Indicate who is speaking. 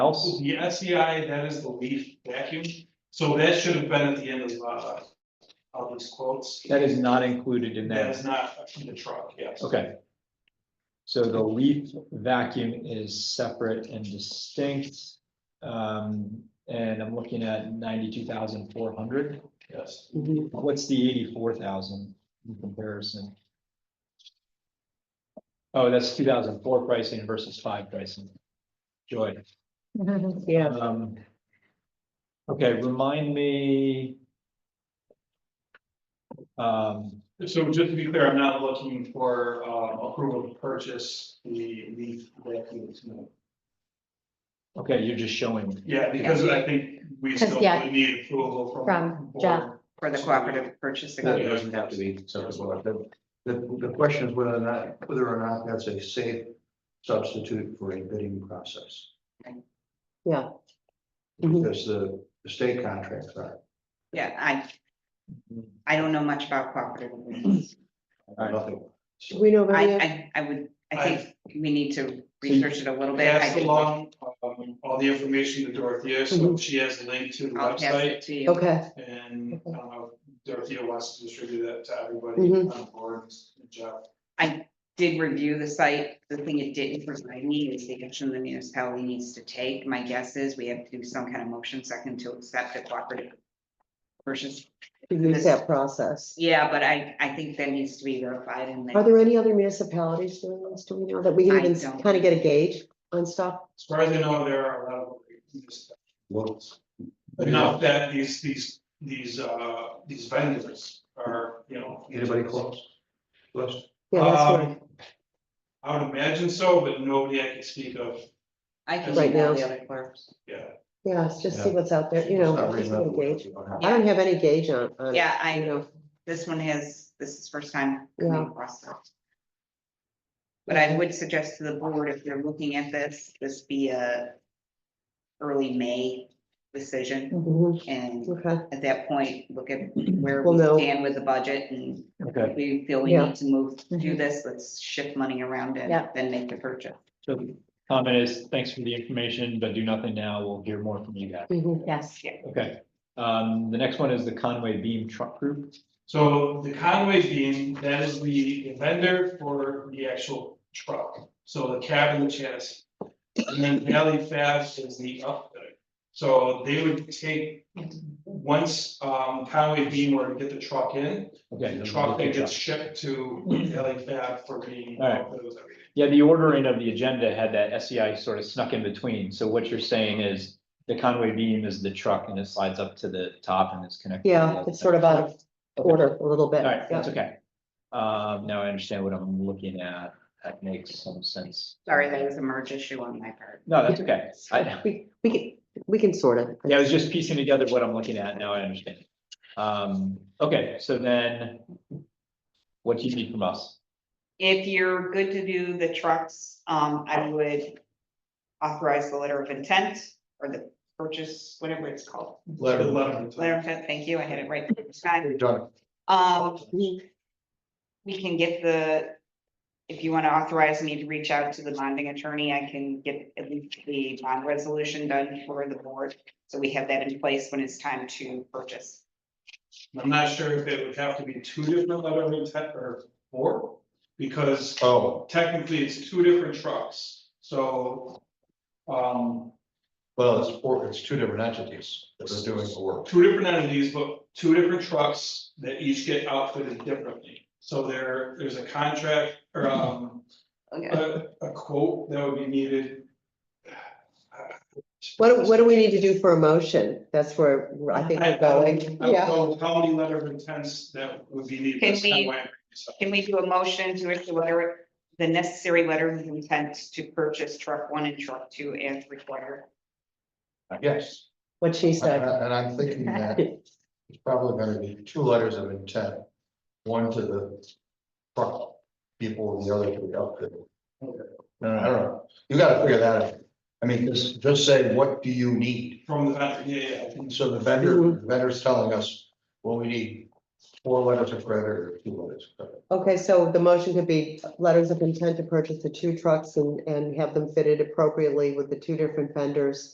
Speaker 1: else?
Speaker 2: The SEI, that is the leaf vacuum, so that should have been at the end of uh of these quotes.
Speaker 1: That is not included in
Speaker 2: That
Speaker 1: that,
Speaker 2: is not in the truck, yes.
Speaker 1: okay. So the leaf vacuum is separate and distinct. Um, and I'm looking at ninety-two thousand four hundred.
Speaker 2: Yes.
Speaker 1: Mm-hmm. What's the eighty-four thousand in comparison? Oh, that's two thousand four pricing versus five pricing. Joy.
Speaker 3: Yeah,
Speaker 1: Um. Okay, remind me. Um,
Speaker 2: So just to be clear, I'm not looking for um approval to purchase the leaf vacuum. no.
Speaker 1: okay, you're just showing,
Speaker 2: Yeah, because I think we still
Speaker 3: Because, yeah.
Speaker 2: would need approval from.
Speaker 3: From
Speaker 2: board.
Speaker 3: Jeff.
Speaker 4: for the cooperative purchasing.
Speaker 5: No, it doesn't have to be separate water. The, the, the question is whether or not, whether or not that's a safe substitute for a bidding process.
Speaker 3: yeah. Mhm.
Speaker 5: Because the, the state contracts are,
Speaker 4: Yeah, I, I don't know much about cooperative agreements.
Speaker 5: are nothing.
Speaker 6: Do we know
Speaker 4: I,
Speaker 6: about it?
Speaker 4: I, I would, I think we need to research it a little bit. I
Speaker 2: Pass
Speaker 4: did-
Speaker 2: along um all the information to Dorothea,
Speaker 1: Mm-hmm.
Speaker 2: so she has a link to the
Speaker 4: I'll pass
Speaker 2: website.
Speaker 4: it to you.
Speaker 6: Okay,
Speaker 2: And uh, Dorothea wants to distribute that to everybody
Speaker 6: Mhm.
Speaker 2: on board, and Jeff.
Speaker 4: Did review the site. The thing it didn't provide me is the action the municipality needs to take. My guess is we have to do some kind of motion second to accept the cooperative purchase.
Speaker 6: use that process.
Speaker 4: Yeah, but I, I think that needs to be verified and
Speaker 6: Are
Speaker 4: then
Speaker 6: there any other municipalities doing this? Do we know that we
Speaker 4: I
Speaker 6: can even
Speaker 4: don't.
Speaker 6: kind of get a gauge on stuff?
Speaker 2: As far as I know, there are a lot of these-
Speaker 5: Well,
Speaker 2: enough that these, these, these, uh, these vendors are, you know.
Speaker 5: Anybody close? List?
Speaker 6: Yeah, that's what
Speaker 2: Um, I would imagine so, but nobody I can speak of,
Speaker 4: I can.
Speaker 6: Right now.
Speaker 4: email the other clerks.
Speaker 2: yeah.
Speaker 6: Yeah, let's just see
Speaker 5: Yeah.
Speaker 6: what's out there, you
Speaker 5: It's
Speaker 6: know,
Speaker 5: not
Speaker 6: just
Speaker 5: reading
Speaker 6: get
Speaker 5: up
Speaker 6: a
Speaker 5: what
Speaker 6: gauge.
Speaker 5: you don't have.
Speaker 6: I don't have any gauge on, on. it,
Speaker 4: Yeah, I
Speaker 6: you
Speaker 4: know. This one has, this is first time
Speaker 6: Yeah.
Speaker 4: coming across it. But I would suggest to the board, if you're looking at this, this be a early May decision.
Speaker 6: Mhm,
Speaker 4: And
Speaker 6: Okay,
Speaker 4: at that point, look at
Speaker 6: Mm-hmm.
Speaker 4: where
Speaker 6: We'll
Speaker 4: we
Speaker 6: know.
Speaker 4: stand with the budget and
Speaker 1: okay,
Speaker 4: if we feel we
Speaker 6: Yeah. Mm-hmm.
Speaker 4: need to move, do
Speaker 3: Mhm.
Speaker 4: this, let's shift money around and
Speaker 3: Yeah.
Speaker 4: then make the purchase.
Speaker 1: so the comment is, thanks for the information, but do nothing now, we'll hear more from you guys,
Speaker 6: mhm.
Speaker 3: Yes,
Speaker 1: okay. Um, the next one is the Conway Beam Truck Group,
Speaker 2: So the Conway beam, that is the vendor for the actual truck, so the cab and the chassis. And then Valley Fast is the outfit. So they would take, once um Conway beam were to get the truck in,
Speaker 1: okay.
Speaker 2: the
Speaker 1: the-
Speaker 2: truck
Speaker 1: the
Speaker 2: then gets
Speaker 1: truck.
Speaker 2: shipped to Valley Fab for being.
Speaker 1: Alright. Yeah, the ordering of the agenda had that SEI sort of snuck in between, so what you're saying is the Conway Beam is the truck and it slides up to the top and it's connected. to
Speaker 6: Yeah,
Speaker 1: the-
Speaker 6: it's sort of out of order a little bit.
Speaker 1: All right, that's
Speaker 6: Yeah.
Speaker 1: okay. Um, now I understand what I'm looking at. That makes some sense.
Speaker 4: Sorry, that was a merge issue on my part.
Speaker 1: No, that's okay. I,
Speaker 6: We, we can, we can sort it.
Speaker 1: yeah, I was just piecing together what I'm looking at. Now I understand. Um, okay, so then what do you need from us?
Speaker 4: If you're good to do the trucks, um, I would authorize the letter of intent or the purchase, whatever it's called.
Speaker 5: Letter.
Speaker 4: Letter of intent, thank you, I had it right the first time.
Speaker 5: You're done.
Speaker 4: Um, we can get the, if you want to authorize me to reach out to the bonding attorney, I can get at least the bond resolution done for the board. So we have that in place when it's time to purchase.
Speaker 2: I'm not sure if it would have to be two different letter of intent or four, because
Speaker 5: Oh,
Speaker 2: technically it's two different trucks, so. Um,
Speaker 5: well, it's four, it's two different entities that are doing the work.
Speaker 2: two different entities, but two different trucks that each get outfitted differently. So there, there's a contract or um,
Speaker 4: Okay.
Speaker 2: a, a quote that would be needed.
Speaker 6: What, do- what do we need to do for a motion? That's where I think
Speaker 2: I I
Speaker 6: we're
Speaker 2: don't-
Speaker 6: going.
Speaker 2: I
Speaker 6: Yeah,
Speaker 2: don't know how many letter of intents that would be needed.
Speaker 4: Can
Speaker 2: That's kinda
Speaker 4: we-
Speaker 2: why I'm bringing this up.
Speaker 4: Can we do a motion to issue letter, the necessary letter of intent to purchase truck one and truck two as required?
Speaker 5: Yes,
Speaker 6: what she
Speaker 5: and
Speaker 6: said.
Speaker 5: I- and I'm thinking that it's probably gonna be two letters of intent. One to the truck people and the other to the outfit. No, I don't know. You gotta figure that out. I mean, just, just say, what do you need?
Speaker 2: From the, vendor, yeah, yeah, yeah.
Speaker 5: And so the vendor, the vendor's telling us, well, we need four letters of credit or two letters of credit.
Speaker 6: Okay, so the motion could be letters of intent to purchase the two trucks and, and have them fitted appropriately with the two different vendors.